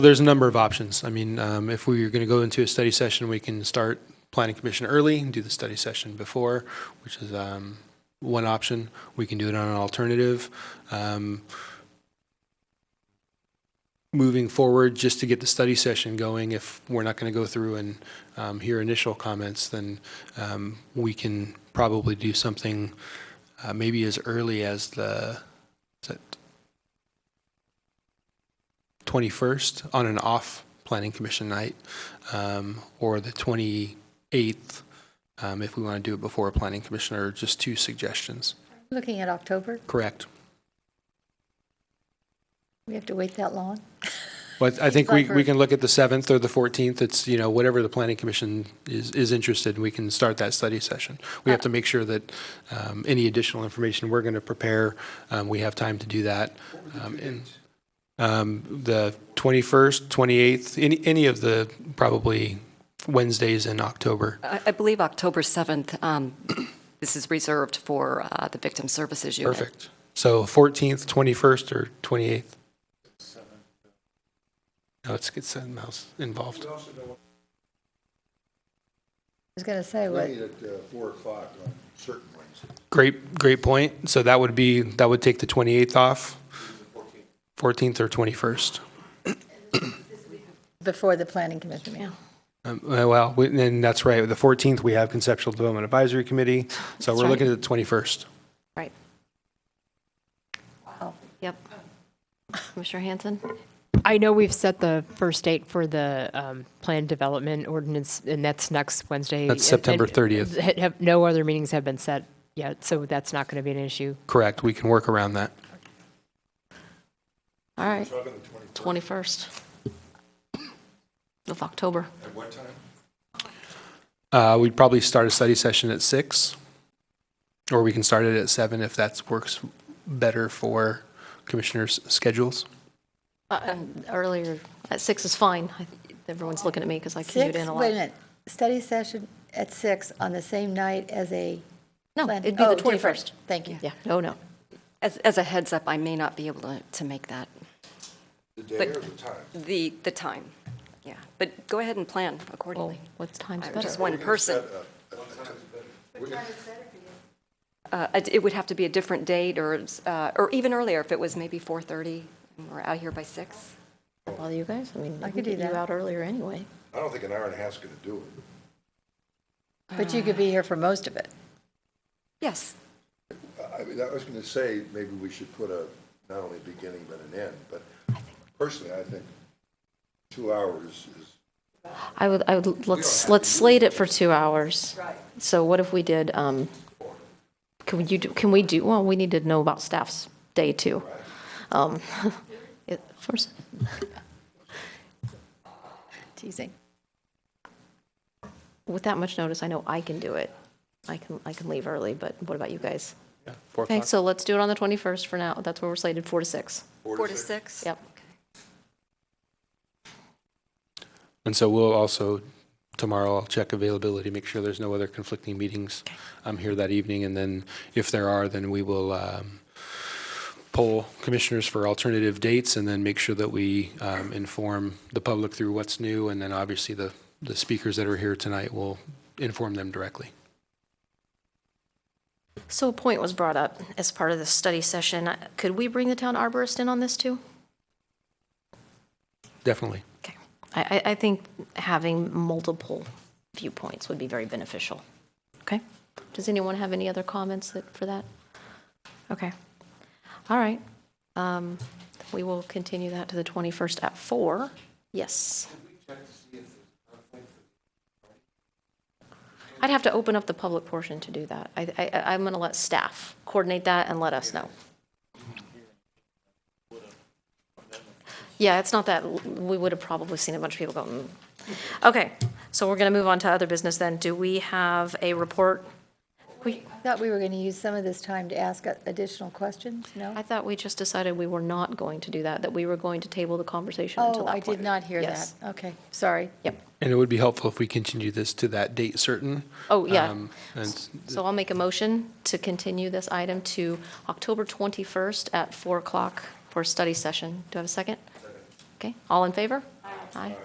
There's a number of options. I mean, um, if we are going to go into a study session, we can start planning commission early and do the study session before, which is um, one option. We can do it on an alternative. Um, Moving forward, just to get the study session going, if we're not going to go through and um, hear initial comments, then um, we can probably do something uh, maybe as early as the, is that 21st on an off planning commission night, um, or the 28th, um, if we want to do it before a planning commissioner, just two suggestions. Looking at October, Correct. we have to wait that long? But I think we, like we we're- can look at the 7th or the 14th. It's, you know, whatever the planning commission is, is interested in, we can start that study session. We have to make sure that um, any additional information we're going to prepare, um, we have time to do that. Um, and, um, The 21st, 28th, any, any of the probably Wednesdays in October. I I believe October 7th, um, this is reserved for uh, the Victim Services Unit. Perfect. So 14th, 21st, or 28th? No, it's, it's something else involved. I was going to say, what, Meet at uh, four o'clock on certain Wednesdays. Great, great point. So that would be, that would take the 28th off, 14th or 21st. before the planning commission meeting? Um, uh, Well, we- and that's right, the 14th, we have Conceptual Development Advisory Committee, so we're right. looking at the 21st. Right. Yep. Commissioner Hanson? I know we've set the first date for the um, planned development ordinance, and that's next Wednesday. That's And- September and 30th. ha- have- No other meetings have been set yet, so that's not going to be an issue. Correct, we can work around that. All right. 21st of October. At what time? Uh, We'd probably start a study session at six, or we can start it at seven if that works better for commissioners' schedules. Uh, Earlier, at 6 is fine. I- Everyone's looking at me because I commute Six, in a wait a lot. minute, study session at six on the same night as a? No, plan- it'd be the oh, different. 21st. Thank you. Yeah, no, no. As, as a heads up, I may not be able to, to make that, The day But- or the time? the, the time. Yeah, but go ahead and plan accordingly. What time's I'm just one person. We're gonna- Uh, it- It would have to be a different date, or, it's, uh, or even earlier, if it was maybe 4:30, and we're out here by six. bother you guys? I mean, I I could could do get you that. out earlier anyway. I don't think an hour and a half's gonna do it. But you could be here for most of it. Yes, I- I mean, I was gonna say, maybe we should put a, not only beginning but an end, but personally, I think two hours is, I would, I would, let's, let's slate it for two hours. Right. So what if we did, um, can we, you, do- can we do, well, we need to know about staff's day too. Um, it- First, Teasing. with that much notice, I know I can do it. I can, I can leave early, but what about you guys? Four Okay, o'clock. so let's do it on the 21st for now. That's where we're slated, four to six. four to six. Yep. And so we'll also, tomorrow, I'll check availability, make sure there's no other conflicting meetings um, here that evening. And then if there are, then we will um, poll commissioners for alternative dates and then make sure that we um, inform the public through what's new. And then obviously the, the speakers that are here tonight will inform them directly. So a point was brought up as part of the study session. Could we bring the town arborist in on this too? Definitely. Okay. I, I, I think having multiple viewpoints would be very beneficial. Okay? Does anyone have any other comments that, for that? Okay. All right. Um, we will continue that to the 21st at four. Yes. I'd have to open up the public portion to do that. I, I, I- I'm going to let staff coordinate that and let us know. Yeah, it's not that, we would have probably seen a bunch of people go, mm. Okay, so we're going to move on to other business then. Do we have a report? We, I Thought we were going to use some of this time to ask additional questions, no? I thought we just decided we were not going to do that, that we were going to table the conversation until Oh, that I point. did not hear that. Yes. Okay, sorry. Yep. And it would be helpful if we continue this to that date certain. Oh, yeah. Um, And So I'll make a motion to continue this item to October 21st at 4 o'clock for a study session. Do I have a second? Okay, all in favor? Aye.